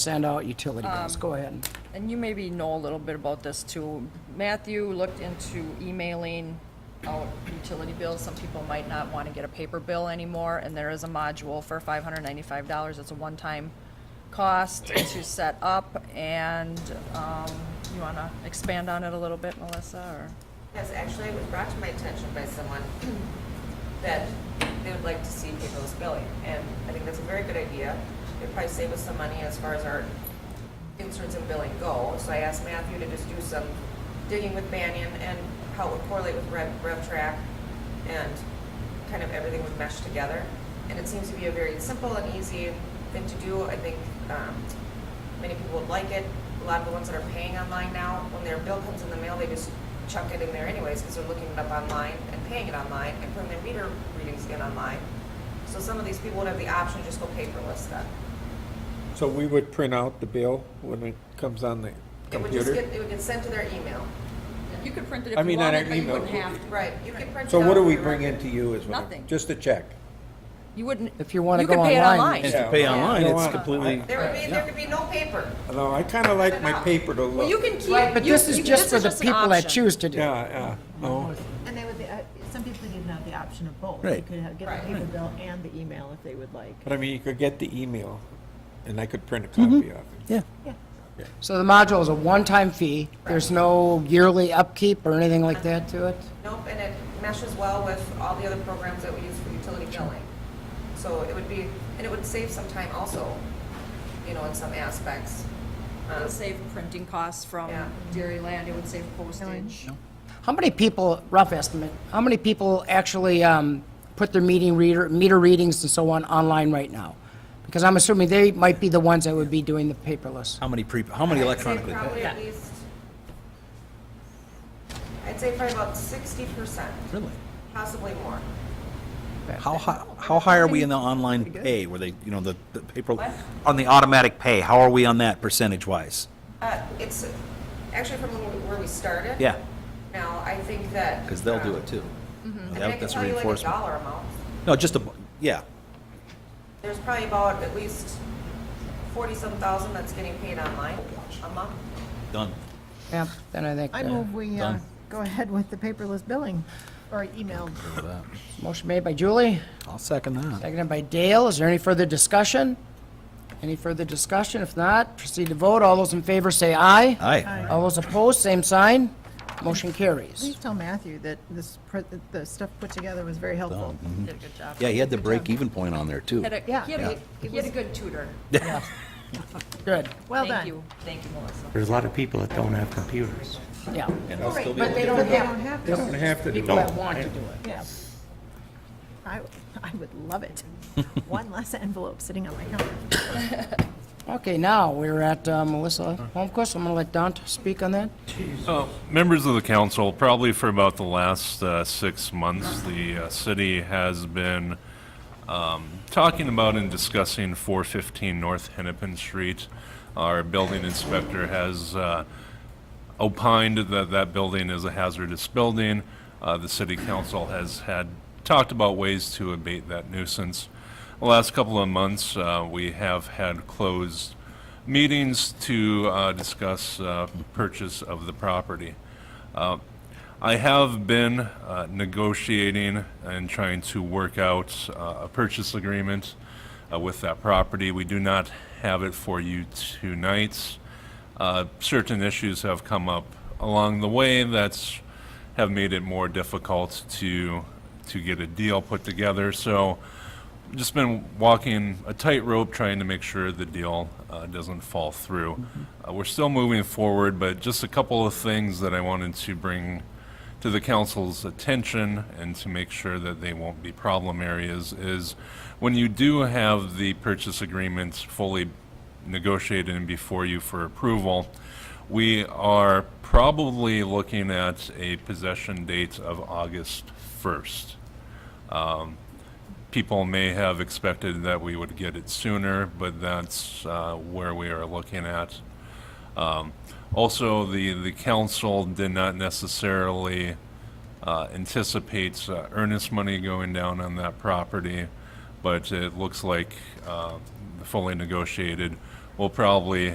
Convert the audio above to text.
send out utility bills. Um, Go ahead. And you maybe know a little bit about this too. Matthew looked into emailing out utility bills. Some people might not want to get a paper bill anymore, and there is a module for five hundred ninety-five dollars. It's a one-time cost to set up, and, um, you want to expand on it a little bit, Melissa, Yes, actually, it was brought to my attention by someone that they would like to see paperless billing, and I think that's a very good idea. It'd probably save us some money as far as our inserts and billing go, so I asked Matthew to just do some digging with Banyan and how it would correlate with Rev, RevTrak, and kind of everything would mesh together. And it seems to be a very simple and easy thing to do. I think, um, Many people would like it. A lot of the ones that are paying online now, when their bill comes in the mail, they just chuck it in there anyways because they're looking it up online and paying it online and putting their meter readings in online. So some of these people would have the option to just go paperless then. So we would print out the bill when it comes on the It would just computer? get, it would get sent to their email. or? You could print it I if you mean, on wanted, our but you email. wouldn't have to. Right. You could print So it out what do for we your bring record. into you as well? Nothing. Just a check? You wouldn't. If you wanna could go pay it online, online. And Yeah. to pay online, You know it's what? completely, There would be, there could be no paper. No, I kind of like my No. paper to Well, you look. can keep. But you- this is you- just for the an people that option. choose to do. it. Yeah, yeah, no. And they would, uh, some people didn't have the option of both. Right. They could have- Right. get the paper bill and the email if they would like. But I mean, you could get the email and I could print a copy of it. Mm-hmm. yeah. So the module is a one-time fee. There's no yearly upkeep or anything like that to it? Nope, and it meshes well with all the other programs that we use for utility billing. So it would be, and it would save some time also, you know, in some aspects. It Um, would save printing costs from Yeah. Dairyland, it would save postage. How many people, rough estimate, how many people actually um, put their meeting reader, meter readings and so on online right now? Because I'm assuming they might be the ones that would be doing the paperless. How many pre, how many I'd say electronically? Probably at least, I'd say probably about sixty percent, Really? possibly more. How hi, how high are we in the online pay, where they, you know, the, the paper, on the automatic pay, how are we on that percentage wise? Uh, it's actually from where we started. Yeah, Now, I think that. because they'll do um, it too. I mean, I That- can That's tell you like a reinforcement. dollar amount. No, just a, bu- yeah, There's probably about at least forty-some thousand that's getting paid online a month. done. Yeah, then I think, I uh, move we uh, Done. go ahead with the paperless billing or email. motion made by Julie, I'll second that. seconded by Dale. Is there any further discussion? Any further discussion? If not, proceed to vote. All those in favor say aye. Aye. All those opposed, same sign. Motion Please carries. tell Matthew that this, pre- that the stuff put together was very helpful. Mm-hmm. Did a good job. Yeah, he had the break even point on there too. Had a, Yeah. he had a, he had a good tutor. Good, Well Thank done. you, thank you, Melissa. There's a lot of people that don't have computers. yeah. And I'll still be But able they to- don't They have, don't have You don't to. have to do people that it. want to do it. Yeah. I, I would love it. One less envelope sitting on my counter. Okay, now, we're at uh, Melissa Holmquist. I'm going to let Don speak on that. Uh, Members of the council, probably for about the last uh, six months, the uh, city has been um, talking about and discussing 415 North Hennepin Street. Our building inspector has uh, opined that that building is a hazardous building. Uh, The city council has had, talked about ways to abate that nuisance. The last couple of months, uh, we have had closed meetings to uh, discuss uh, purchase of the property. Uh, I have been uh, negotiating and trying to work out uh, a purchase agreement uh, with that property. We do not have it for you tonight. Uh, certain issues have come up along the way that's have made it more difficult to to get a deal put together. So just been walking a tightrope trying to make sure the deal uh, doesn't fall through. Uh, we're still moving forward, but just a couple of things that I wanted to bring to the council's attention and to make sure that they won't be problem areas is when you do have the purchase agreements fully negotiated and before you for approval, we are probably looking at a possession date of August 1st people may have expected that we would get it sooner, but that's uh, where we are looking at. Um, Also, the, the council did not necessarily uh, anticipate uh, earnest money going down on that property, but it looks like uh, the fully negotiated we'll probably